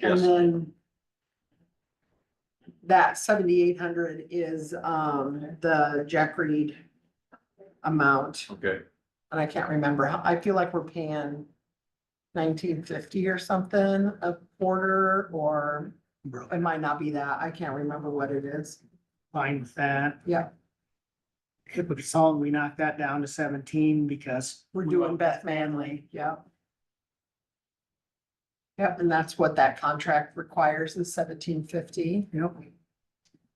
And Yes. then that seventy-eight hundred is, um, the Jack Reed amount, Okay, and I can't remember, how I feel like we're paying nineteen fifty or something a quarter, or it might not be that, I can't remember what it is. fine with that. Yeah. It would solve, we knock that down to seventeen because. We're we doing want- Beth Manley, yep. Yep, and that's what that contract requires is seventeen fifty. Yep,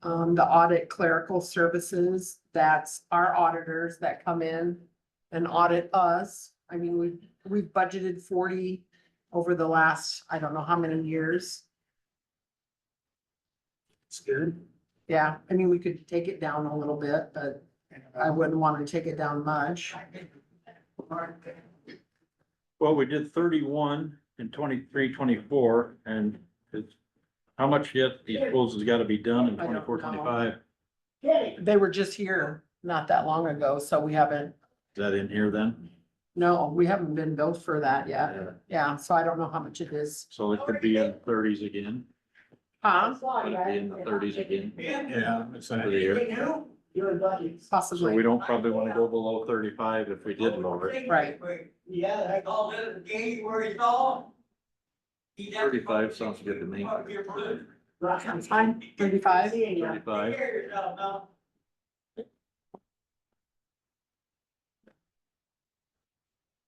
Um, the audit clerical services, that's our auditors that come in and audit us. I mean, we, we've budgeted forty over the last, I don't know how many years. it's good. Yeah, I mean, we could take it down a little bit, but I wouldn't want to take it down much. well, we did thirty-one in 23, 24, and it's. How much yet do you suppose has gotta be done in I don't 24, 25? know. They were just here not that long ago, so we haven't, Is that in here then? no, we haven't been billed for that yet. Yeah, so I don't know how much it is. So it could be in thirties again, Huh? could it be in the thirties again Yeah. for the year. So we Possibly, don't probably wanna go below thirty-five if we did lower it. right. Yeah, I called it a game where it's all. 35 sounds good to me. Sounds fine, thirty-five? Thirty-five,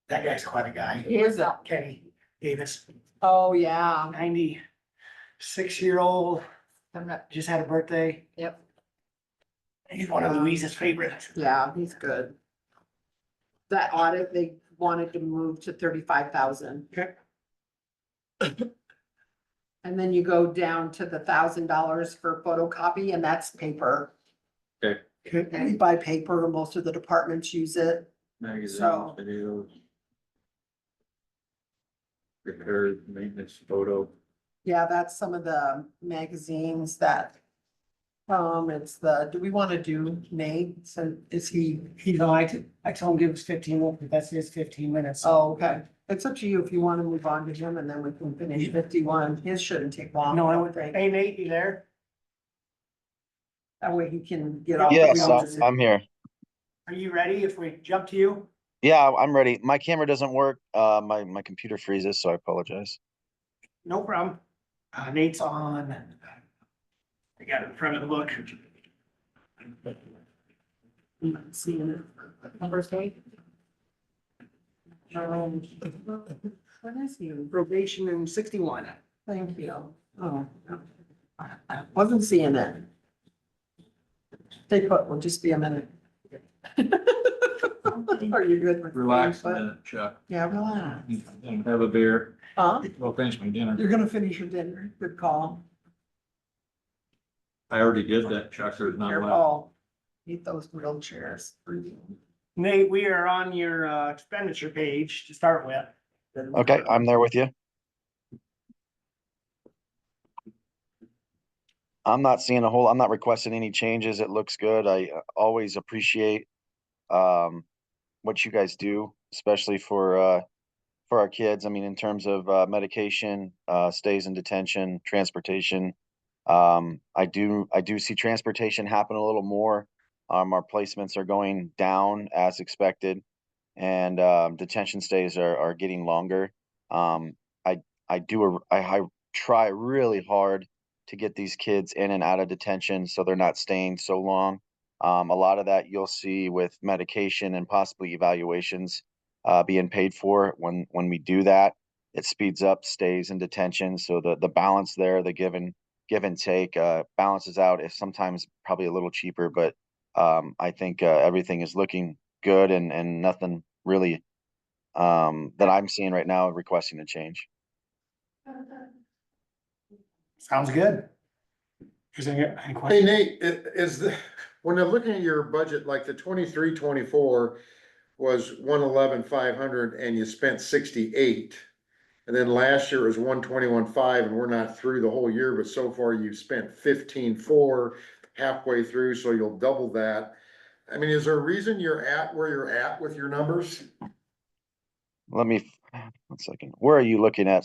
That guy's quite a guy. Who is that? Kenny Davis, Oh, yeah. ninety-six year old, I'm not, just had a birthday. Yep. He's one of Louise's favorites. yeah, he's good. That audit, they wanted to move to thirty-five thousand. Okay. And then you go down to the thousand dollars for photocopy and that's paper. Okay. We buy paper, most of the departments use it. magazines, So- videos. Repair, maintenance, photo. Yeah, that's some of the magazines that. Um, it's the, do we want to do Nate? So is he, You know, I, I told him give us fifteen, minutes, but that's his fifteen minutes. oh, okay. It's up to you if you want to move on to him and then we can finish fifty-one. His shouldn't take long. No, I don't would, think. hey Nate, you there? That way he can get off. the Yes, uh, wheels. I'm, I'm here. Are you ready if we jump to you? Yeah, I'm ready. My camera doesn't work. Uh, my, my computer freezes, so I apologize. No problem. Uh, Nate's on. uh, I got it in front of the book. I'm not Seeing it. Number three. Um, What is he? Probation in sixty-one. Thank you. Oh. I Wasn't seeing it. Stay put, we'll just be a minute. Are you good? with- Relax a minute, Chuck, Yeah, relax. have a beer. Huh? Well, finish my dinner. You're gonna finish your dinner. Good call. I already did that, Chuck, there's not Your left. call. Eat those grilled chairs. Nate, we are on your uh, expenditure page to start with. Okay, I'm there with you. I'm not seeing a whole, I'm not requesting any changes. It looks good. I uh, always appreciate um, what you guys do, especially for, uh, for our kids. I mean, in terms of uh, medication, uh, stays in detention, transportation. Um, I do, I do see transportation happen a little more. Um, our placements are going down as expected and um, detention stays are, are getting longer. Um, I I do a, I, I try really hard to get these kids in and out of detention so they're not staying so long. Um, a lot of that you'll see with medication and possibly evaluations uh, being paid for. When when we do that, it speeds up stays in detention. So the the balance there, the give and give and take uh, balances out. Is sometimes probably a little cheaper, but um, I think uh, everything is looking good and and nothing really um that I'm seeing right now requesting a change. Sounds good. Is there any Hey questions? Nate, i- is the, when they're looking at your budget, like the twenty-three, twenty-four was one eleven, five hundred and you spent sixty-eight. And then last year was one twenty-one, five, and we're not through the whole year, but so far you've spent fifteen, four halfway through, so you'll double that. I mean, is there a reason you're at where you're at with your numbers? Let me one second. Where are you looking at